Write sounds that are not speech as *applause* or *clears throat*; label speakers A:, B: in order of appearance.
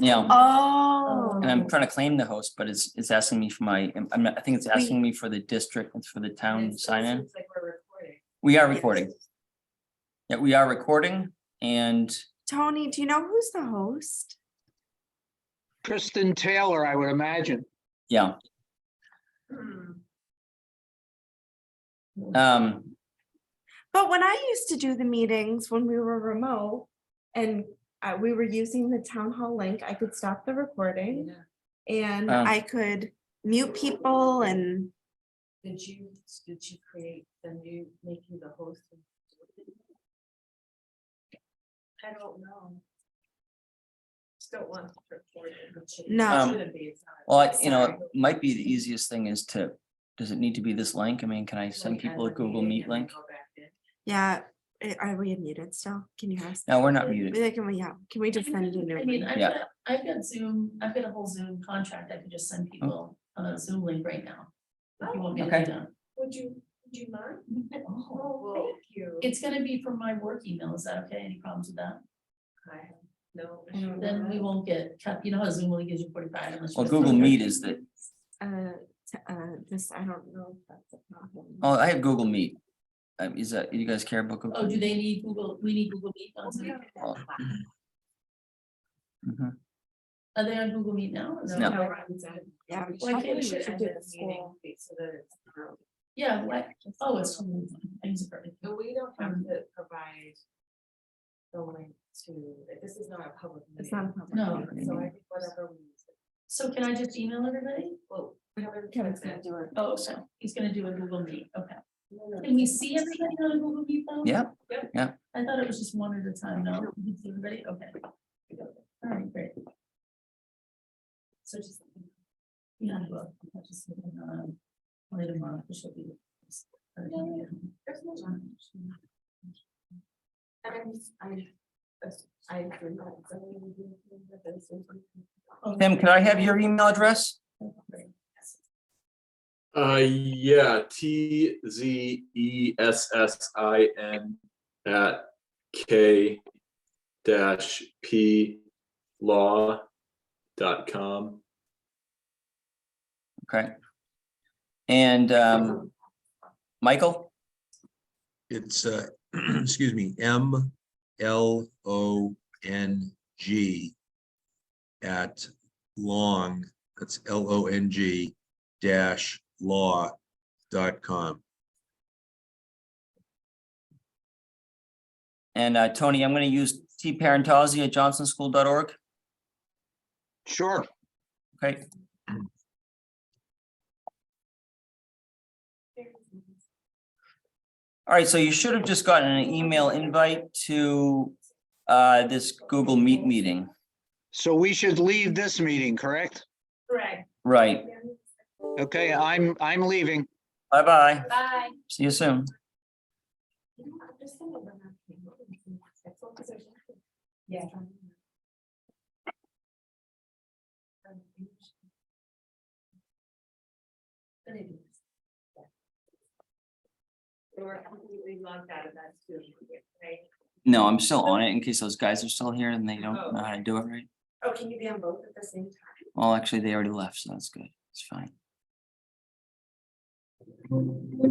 A: you know,
B: Oh.
A: and I'm trying to claim the host, but it's, it's asking me for my, I'm, not- I think it's asking me for the district, it's for the town sign in.
C: It's like we're recording.
A: We are recording. Yeah, we are recording and
B: Tony, do you know who's the host?
D: Kristen Taylor, I would imagine.
A: yeah,
C: Hmm.
A: um,
B: But when I used to do the meetings when we were remote and uh, we were using the town hall link, I could stop the recording
C: Yeah.
B: and
A: Oh.
B: I could mute people and
C: Did you, did you create the new, make you the host? and- I don't know. Still want to record it. but should-
B: No.
C: it shouldn't be, it's not.
A: Um, well, I- you know, it might be the easiest thing is to, does it need to be this link? I mean, can I send
C: Like, add
A: people a
C: the
A: Google
C: meeting
A: Meet
C: and then
A: link?
C: go back in.
B: yeah, eh, are we muted still? Can you hear us?
A: No, we're not muted.
B: Like, Can we, yeah, can we just send you a new
E: I mean,
B: one?
E: I've
A: Yeah.
E: got, I've got Zoom, I've got a whole Zoom contract, I could just send people a Zoom link right now. If you want me to
A: Oh. Okay.
E: do that.
C: Would you, would you mind?
E: *laughs* Oh.
C: Oh, well, thank you.
E: It's gonna be from my work email, is that okay, any problems with that?
C: I have No.
B: I don't
E: Then we won't get, cut. you know how Zoom only gives you forty-five unless. you
A: Well,
E: get
A: Google
E: something.
A: Meet is the,
B: Uh, t- uh, this, I don't know if that's a problem.
A: oh, I have Google Meet. Um, is that, you guys care about Google?
E: Oh, do they need Google, we need Google Meet on Zoom,
A: Oh. Mm-hmm.
E: are they on Google Meet now? Is that
A: No.
E: okay?
B: Yeah.
E: Well, Um, I think we
C: I think we
E: should
C: should
E: add
C: do
E: that
C: the
E: meeting
C: meeting so that it's.
E: Yeah, what, oh, it's, from- I use it for everything.
C: But we don't have to provide the link to, this is not a public
B: It's not a
C: meeting.
B: problem.
E: No.
C: So I think whatever we.
E: so can I just email everybody?
C: Well,
B: Kevin's gonna do it.
E: Oh, so he's gonna do a Google Meet, okay. Can we see everybody on Google Meet though?
A: Yeah,
E: I thought it was just one at a time, no, we can see everybody, okay. All right, great. So just. Yeah, well, I'll just, um, later on, it should be.
C: There's no time. And I, I, I do not.
A: Tim, can I have your email address?
F: Uh, yeah, T Z E S S I N at K dash P law dot com.
A: Okay. And, um, Michael,
G: It's, uh, *clears throat* excuse me, M L O N G at long, that's L O N G dash law dot com.
A: and, uh, Tony, I'm gonna use T parentozzi at johnsonschool.org.
D: Sure.
A: Okay, all right, so you should have just gotten an email invite to uh this Google Meet meeting,
D: So we should leave this meeting, correct?
C: Right.
A: right?
D: Okay, I'm, I'm leaving.
A: Bye-bye,
C: Bye.
A: see you soon.
C: Yeah. They were completely locked out of that too, right?
A: No, I'm still on it in case those guys are still here and they don't know how to do it right.
C: Oh, can you be on both at the same time?
A: Well, actually, they already left, so that's good, it's fine.